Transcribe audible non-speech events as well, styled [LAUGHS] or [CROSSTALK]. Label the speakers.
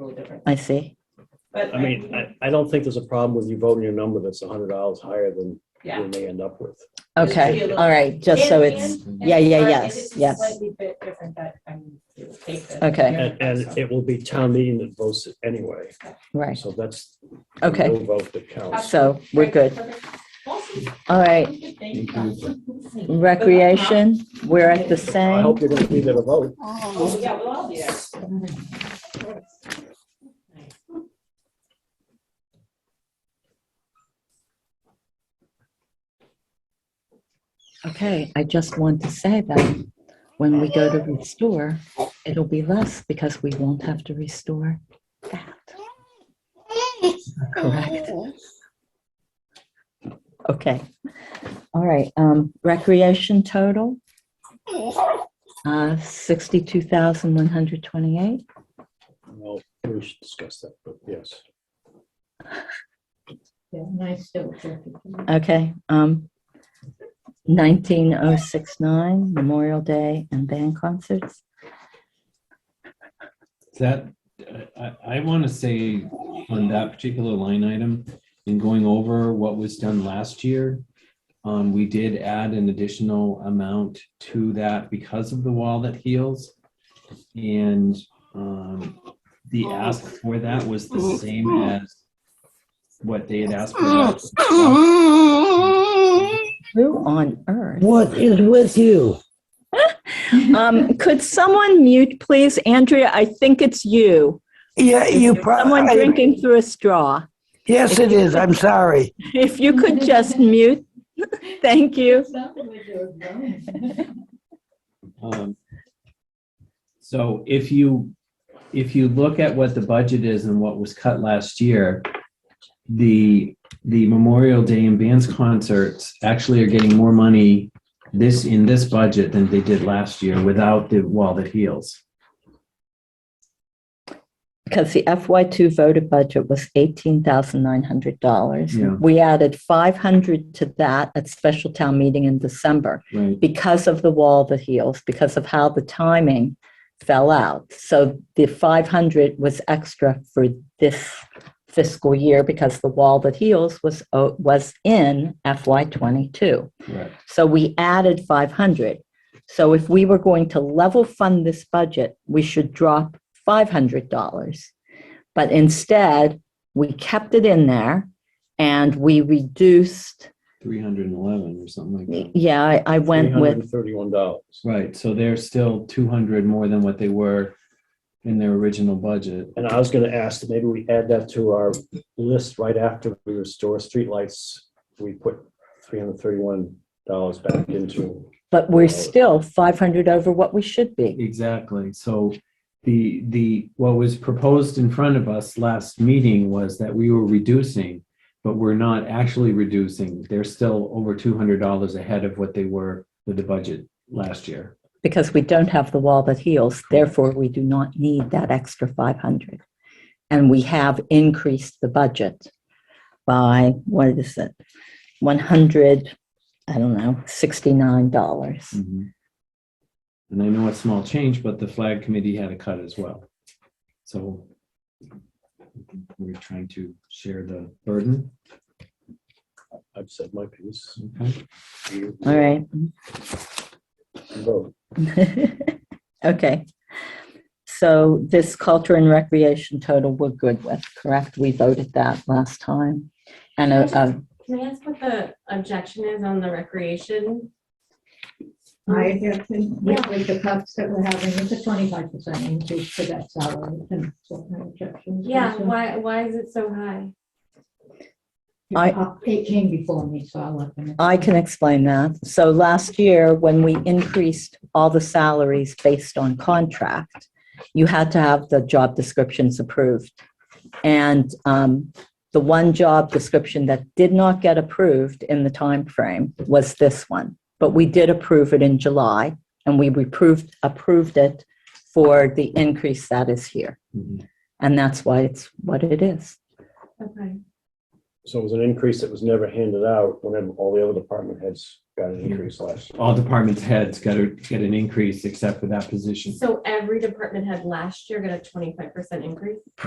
Speaker 1: little different.
Speaker 2: I see.
Speaker 1: But
Speaker 3: I mean, I, I don't think there's a problem with you voting a number that's a hundred dollars higher than
Speaker 1: Yeah.
Speaker 3: you may end up with.
Speaker 1: Just to be a
Speaker 2: Okay,
Speaker 1: little-
Speaker 2: all right, just so
Speaker 1: And-
Speaker 2: it's,
Speaker 1: and-
Speaker 2: yeah,
Speaker 1: and
Speaker 2: yeah,
Speaker 1: sorry,
Speaker 2: yes,
Speaker 1: it is
Speaker 2: yes.
Speaker 1: Slightly bit different, but I'm, it will take the.
Speaker 2: Okay.
Speaker 3: And, and it will be town meeting that votes it anyway,
Speaker 2: right,
Speaker 3: so that's. the
Speaker 2: Okay.
Speaker 3: no Vote that counts.
Speaker 2: so we're good. All right, recreation, we're at the
Speaker 3: I
Speaker 2: same.
Speaker 3: hope you're gonna be there to vote.
Speaker 1: Oh, yeah, we'll all be there.
Speaker 2: Okay, I just want to say that when we go to restore, it'll be less because we won't have to restore that. Correct. Okay. All right, um, recreation total, uh, sixty-two thousand one hundred twenty-eight.
Speaker 3: Well, we should discuss that, but yes.
Speaker 1: Nice
Speaker 2: Okay, um, nineteen oh six nine, Memorial Day and band concerts.
Speaker 4: That, I, I want to say on that particular line item, in going over what was done last year, um, we did add an additional amount to that because of the wall that heals. And, um, the ask for that was the same as what they had asked for. last-
Speaker 2: Who on earth?
Speaker 5: What is with you?
Speaker 6: Um, could someone mute, please? Andrea, I think it's you.
Speaker 5: Yeah, you
Speaker 6: Someone
Speaker 5: probably,
Speaker 6: drinking through a straw.
Speaker 5: yes, it is. I'm sorry.
Speaker 6: If you could just mute. [LAUGHS] Thank you.
Speaker 4: Um, So if you, if you look at what the budget is and what was cut last year, the, the Memorial Day and bands concerts actually are getting more money this, in this budget than they did last year without the wall that heals.
Speaker 2: Because the FY2 voted budget was $18,900.
Speaker 4: Yeah.
Speaker 2: We added 500 to that at special town meeting in December
Speaker 4: Right.
Speaker 2: because of the wall that heals, because of how the timing fell out. So the 500 was extra for this fiscal year because the wall that heals was, uh, was in FY22.
Speaker 4: Correct.
Speaker 2: So we added 500. So if we were going to level fund this budget, we should drop $500. But instead, we kept it in there and we reduced,
Speaker 4: 311 or something like that.
Speaker 2: yeah, I- I went with,
Speaker 3: Thirty-one dollars.
Speaker 4: Right, so they're still 200 more than what they were in their original budget.
Speaker 3: And I was gonna ask, that maybe we add that to our list right after we restore streetlights. We put three hundred thirty-one dollars back into,
Speaker 2: but we're still 500 over what we should be.
Speaker 4: Exactly. So the, the, what was proposed in front of us last meeting was that we were reducing, but we're not actually reducing. They're still over two hundred dollars ahead of what they were with the budget last year.
Speaker 2: Because we don't have the wall that heals, therefore we do not need that extra 500. And we have increased the budget by, what is it? 100, I don't know, $69.
Speaker 4: And I know it's small change, but the flag committee had a cut as well. So we're trying to share the burden.
Speaker 3: I've said my piece.
Speaker 4: Okay.
Speaker 3: You-
Speaker 2: All right.
Speaker 3: you Vote.
Speaker 2: [LAUGHS] Okay. So this culture and recreation total, we're good with, correct? We voted that last time. And, uh, uh,
Speaker 7: Can I ask what the objection is on the recreation?
Speaker 1: [LAUGHS] I guess with with the cuts that we're having, it's a twenty-five percent increase for that salary and so no objections.
Speaker 7: Yeah,
Speaker 1: Also,
Speaker 7: why, why is it so high?
Speaker 2: I-
Speaker 1: It came before me, so I'll let them.
Speaker 2: I can explain that. So last year, when we increased all the salaries based on contract, you had to have the job descriptions approved. And um, the one job description that did not get approved in the time frame was this one. But we did approve it in July, and we approved, approved it for the increase that is here.
Speaker 4: Mhm.
Speaker 2: And that's why it's what it is.
Speaker 7: Okay,
Speaker 3: So it was an increase that was never handed out whenever all the other department heads got an increase last year.
Speaker 4: All department heads got to get an increase except for that position.
Speaker 7: so every department had last year got a twenty-five percent increase?